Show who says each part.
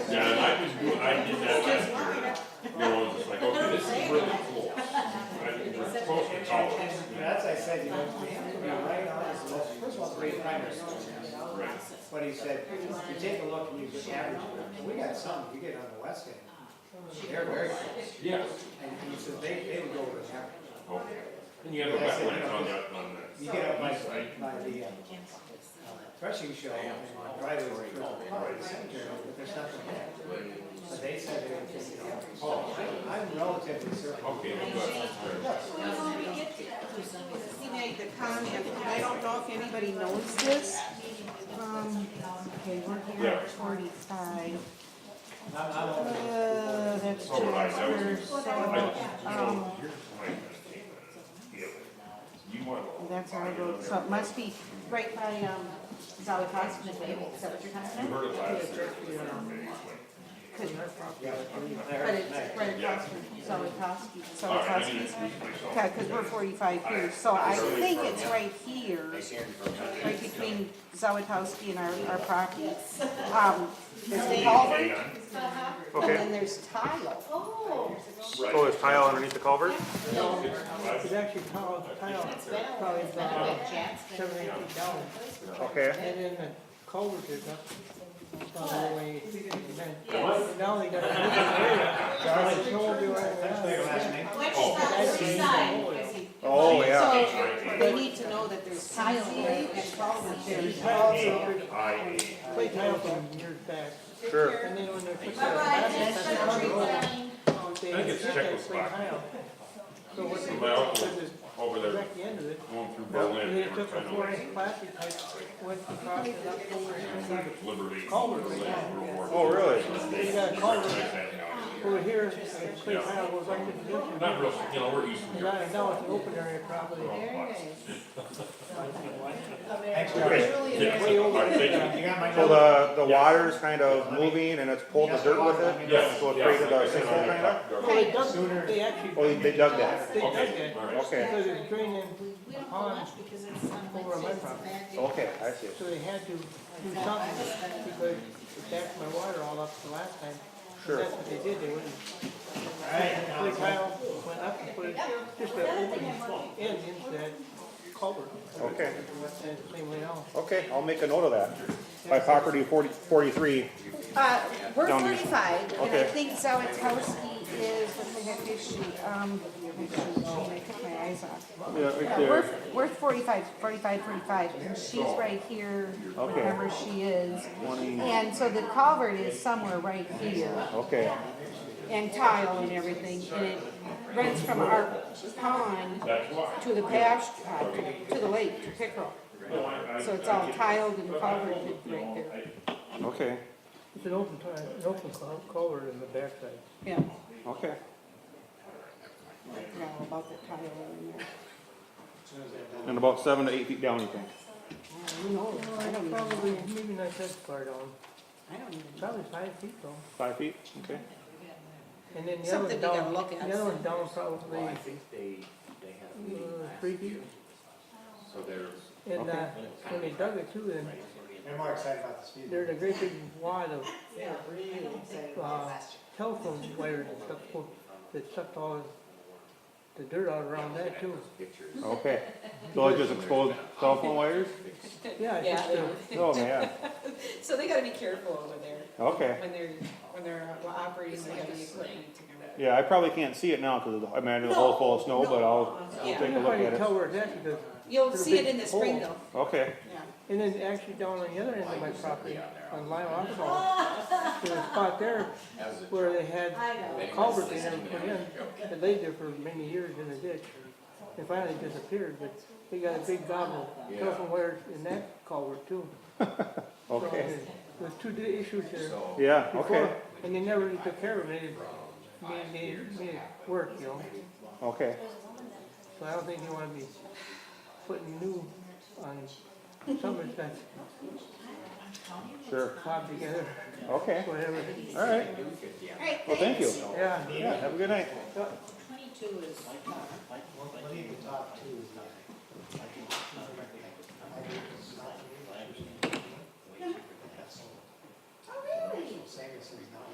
Speaker 1: I did that last year. You know, it's like, okay, this is really close. I think we're close to college.
Speaker 2: That's, I said, you know, right now, it's the most- first of all, it's great primary school, but he said, you take a look and you just average it, and we got some, you get on the west end, they're very close,
Speaker 1: Yes,
Speaker 2: and he said, they, they would go over the average.
Speaker 1: okay. And you have a wetland on that, on that.
Speaker 2: You get up
Speaker 1: east
Speaker 2: by,
Speaker 1: side.
Speaker 2: by the, uh, uh, threshing show, and the driveway, you know, but there's nothing there. But they said they would take it out. Oh, I- I'm relatively certain.
Speaker 1: Okay, I'm glad that's there.
Speaker 3: He made the comment, I don't know if anybody knows this. Um, okay, we're here at forty-five.
Speaker 2: Not, not
Speaker 3: Uh,
Speaker 2: only
Speaker 3: that's
Speaker 1: So would I, that
Speaker 3: two,
Speaker 1: was- I, you
Speaker 3: so,
Speaker 1: know, here's my mistake. Yeah. You want.
Speaker 3: that's our road, so it must be right by, um, Zalakos, is that what you're
Speaker 1: You
Speaker 3: talking about?
Speaker 1: heard it last year. Okay, but-
Speaker 3: Could-
Speaker 2: there,
Speaker 3: But it's
Speaker 2: there.
Speaker 3: right across from Zalakos,
Speaker 1: All right, I
Speaker 3: Zalakos.
Speaker 1: need to introduce myself.
Speaker 3: Yeah, because we're forty-five here, so I think it's right here, right between Zawitowski and our, our property. Um, there's the culvert, and
Speaker 4: Okay,
Speaker 3: then there's tile.
Speaker 4: so Oh, there's tile underneath the culvert?
Speaker 5: It's actually tile, tile, probably about seven, eight feet down,
Speaker 4: Okay,
Speaker 5: and then the culvert is up, about all the way, and then, now they got. Charlie. do
Speaker 2: That's their last name.
Speaker 4: oh, yeah.
Speaker 3: So, they need to know that there's tile there, and culvert there.
Speaker 1: I,
Speaker 5: Play tile from years back,
Speaker 4: Sure.
Speaker 5: and then when they put the. I
Speaker 1: think it's Czechoslovak.
Speaker 5: So what they
Speaker 1: my uncle
Speaker 5: did is
Speaker 1: over there,
Speaker 5: direct the end of it,
Speaker 1: going through
Speaker 5: and
Speaker 1: Berlin,
Speaker 5: they
Speaker 1: they were
Speaker 5: took a
Speaker 1: trying to
Speaker 5: four
Speaker 1: like,
Speaker 5: inch plastic pipe, went across it up over here.
Speaker 1: liberate
Speaker 5: Culvert.
Speaker 1: Berlin, World War.
Speaker 4: Oh, really?
Speaker 5: You got a culvert
Speaker 1: II.
Speaker 5: over here, and clay tile goes right to the ditch. and
Speaker 1: Not real, you know, we're east of
Speaker 5: And
Speaker 1: Europe.
Speaker 5: I know it's an open area probably.
Speaker 1: Yes,
Speaker 5: Way
Speaker 1: all
Speaker 5: over
Speaker 1: right, thank you.
Speaker 2: You got my
Speaker 4: So
Speaker 2: number?
Speaker 4: the, the water's kind of moving and it's pulling the dirt with it?
Speaker 1: Yes,
Speaker 4: So it
Speaker 1: yes,
Speaker 4: created a
Speaker 1: like I said,
Speaker 4: sinkhole kind of?
Speaker 5: Well,
Speaker 4: Oh, they-
Speaker 5: they dug, they actually,
Speaker 4: they dug that?
Speaker 5: they dug
Speaker 1: Okay,
Speaker 5: it,
Speaker 1: all right.
Speaker 4: Okay,
Speaker 5: because it drained in a pond over my property.
Speaker 4: okay, I see.
Speaker 5: So they had to do something, because it backed my water all up the last time.
Speaker 4: Sure.
Speaker 5: That's what they did, they wouldn't,
Speaker 2: All right, now,
Speaker 5: put tile, went up and put just an open end into that culvert.
Speaker 4: Okay,
Speaker 5: And it's the same way now.
Speaker 4: okay, I'll make a note of that. By property 40 43.
Speaker 3: Uh, we're
Speaker 4: Down here.
Speaker 3: forty-five, and I
Speaker 4: Okay.
Speaker 3: think Zawitowski is, what the heck is she, um, oh, I took my eyes off.
Speaker 4: Yeah, right
Speaker 3: Yeah, we're,
Speaker 4: there. Oh.
Speaker 3: we're forty-five, forty-five, forty-five, and she's right here,
Speaker 4: Okay.
Speaker 3: wherever she is. And so the culvert is somewhere right here,
Speaker 4: Okay,
Speaker 3: and tile and everything, and it runs from our pond to the pasture, uh, to- to the lake, to Pickerel. So it's all tiled and culverted right there,
Speaker 4: okay,
Speaker 5: It's an open tile, an open cul- culvert in the backside.
Speaker 3: yeah,
Speaker 4: okay.
Speaker 3: yeah, about the tile in there.
Speaker 4: And about seven to eight feet down, you think?
Speaker 3: Who knows? I don't even,
Speaker 5: Probably, maybe not that far down,
Speaker 3: I don't even.
Speaker 5: probably five feet though.
Speaker 4: Five feet? Okay.
Speaker 5: And then the other
Speaker 3: Something
Speaker 5: one
Speaker 3: we gotta
Speaker 5: down,
Speaker 3: look at.
Speaker 5: the other one down probably
Speaker 6: Well, I
Speaker 5: uh,
Speaker 6: think they, they had a
Speaker 5: Mm,
Speaker 6: meeting last
Speaker 5: three feet.
Speaker 6: year, so they're,
Speaker 5: And uh, when they dug it too, then
Speaker 2: They're more excited about the speed.
Speaker 5: there's a great big wad of uh, telephone wires and stuff for- that sucked all the dirt out around that too.
Speaker 6: pictures.
Speaker 4: Okay. So I just exposed cell phone wires?
Speaker 5: Yeah, it's just, uh,
Speaker 4: Oh, man.
Speaker 7: So they gotta be careful over there
Speaker 4: Okay.
Speaker 7: when they're, when they're operating the heavy equipment to do that.
Speaker 4: Yeah, I probably can't see it now because I imagine the whole full of snow, but I'll, I'll
Speaker 7: Yeah.
Speaker 4: take a
Speaker 5: you
Speaker 4: look
Speaker 5: probably
Speaker 4: at it.
Speaker 5: tell where it's at because,
Speaker 7: You'll see it in the spring
Speaker 5: Hole.
Speaker 7: though.
Speaker 4: Okay,
Speaker 5: and then actually down on the other end of my property, on Lyle Oswald, there's a spot there where they had a culvert they never put in, that laid there for many years in a ditch. It finally disappeared, but they got a big gobble of telephone wires in that culvert too. So,
Speaker 4: okay.
Speaker 5: There's two di- issues there.
Speaker 4: Yeah, okay,
Speaker 5: before, and they never really took care of it, it made, made, made it work, you know?
Speaker 4: okay.
Speaker 5: So I don't think you wanna be putting new um, on something that's
Speaker 4: Sure.
Speaker 5: cobbled together,
Speaker 4: Okay,
Speaker 5: whatever,
Speaker 4: all right. Well, thank you.
Speaker 5: yeah.
Speaker 4: Yeah, have a good night.
Speaker 2: We'll need to talk to, uh,
Speaker 3: Oh, really?
Speaker 2: Sanderson's not